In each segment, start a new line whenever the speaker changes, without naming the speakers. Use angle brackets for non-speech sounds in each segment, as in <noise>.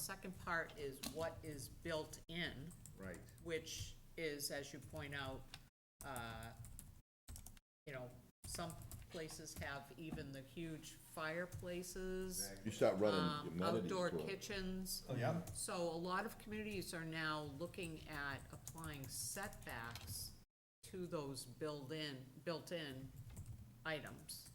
second part is what is built in,
Right,
which is, as you point out, uh, you know, some places have even the huge fireplaces,
You start running
um,
amenities
outdoor
through it.
kitchens.
oh, yeah,
So a lot of communities are now looking at applying setbacks to those built-in, built-in items.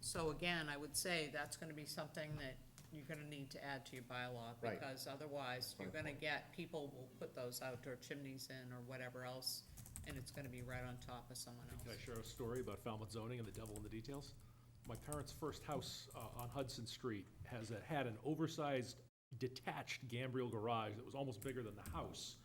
So again, I would say that's gonna be something that you're gonna need to add to your bylaw,
Right.
because otherwise, you're gonna get, people will put those outdoor chimneys in or whatever else, and it's gonna be right on top of someone
Can
else.
I share a story about Falmouth zoning and the devil in the details? My parents' first house uh, on Hudson Street has, a- had an oversized detached gambrel garage that was almost bigger than the house.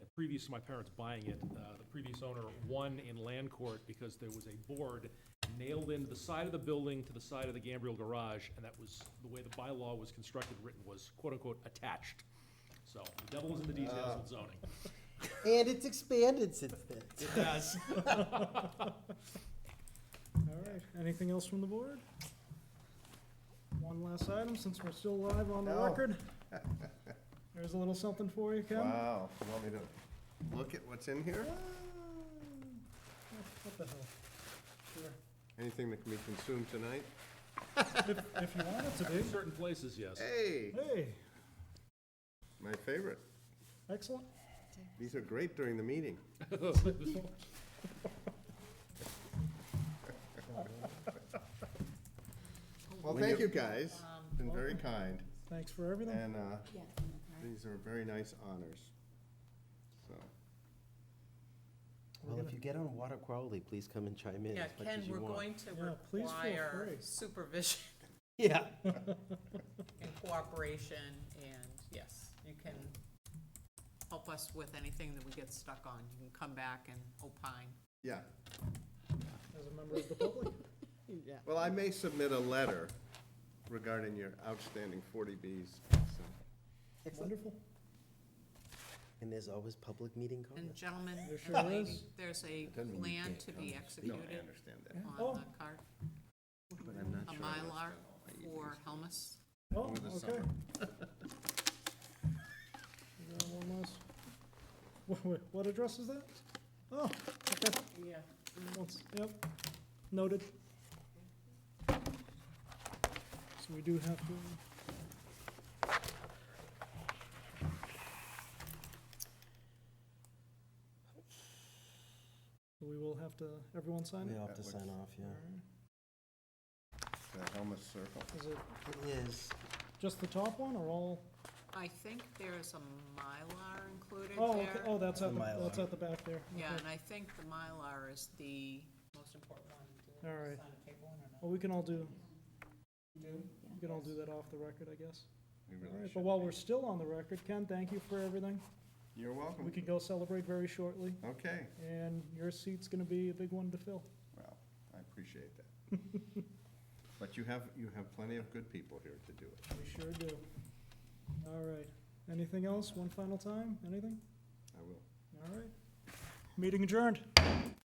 And Previous to my parents buying it, uh, the previous owner won in land court because there was a board nailed into the side of the building to the side of the gambrel garage, and that was, the way the bylaw was constructed, written, was quote-unquote attached. So the devil is in the details of zoning.
And it's expanded since then.
It does.
All right, anything else from the board? One last item, since we're still live on the
No.
record. There's a little something for you, Ken.
wow, you want me to look at what's in here?
Ah.
What the hell? Sure.
Anything that can be consumed tonight?
If, if you want it to be.
Certain places, yes.
Hey,
Hey,
my favorite,
excellent.
these are great during the meeting. Well,
When
thank
you-
you guys,
Um,
been very kind,
Thanks for everything.
and, uh,
Yeah.
these are very nice honors, so.
We're
Well, if
gonna-
you get on Water Quality, please come and chime in
Yeah,
as much
Ken,
as you
we're
want.
going to
Yeah, please feel
require
free.
supervision
Yeah.
and cooperation, and yes, you can help us with anything that we get stuck on. You can come back and opine.
Yeah,
As a member of the public.
well, I may submit a letter regarding your outstanding forty Bs, so.
Wonderful.
And there's always public meeting
And
comments.
gentlemen
There
and
sure
lady,
is.
there's a
doesn't mean you
plan
can't
to
come and
be
No, I
executed
understand that,
on
Oh.
the card,
but
a
I'm not sure. I understand
Mylar
all my evenings.
for Helmus.
Oh,
Over the
okay.
summer.
We got one last- <laughs> Wha- wha- What address is that? Oh, okay.
Yeah.
Once- Yep, noted. So we do have to, we will have to, everyone sign
We
it?
all have to
That
sign
looks-
off, yeah.
The Helmut Circle.
Is it
It is.
just the top one or all?
I think there's a Mylar included
Oh, okay,
there.
oh, that's at,
The
the- that's
Mylar.
at the back there.
Yeah,
okay.
and I think the Mylar is the most important one. Do you
All right.
sign a paper one or not?
Well, we can all do, we can all do that off the record, I guess.
We
All
really
right, but
should.
while we're still on the record, Ken, thank you for everything.
You're
We
welcome. <laughs>
can go celebrate very shortly,
Okay,
and your seat's gonna be a big one to fill.
well, I appreciate that.
<laughs>
But you have, you have plenty of good people here to do it.
We sure do. All right. Anything else? One final time? Anything?
I will.
All right. Meeting adjourned.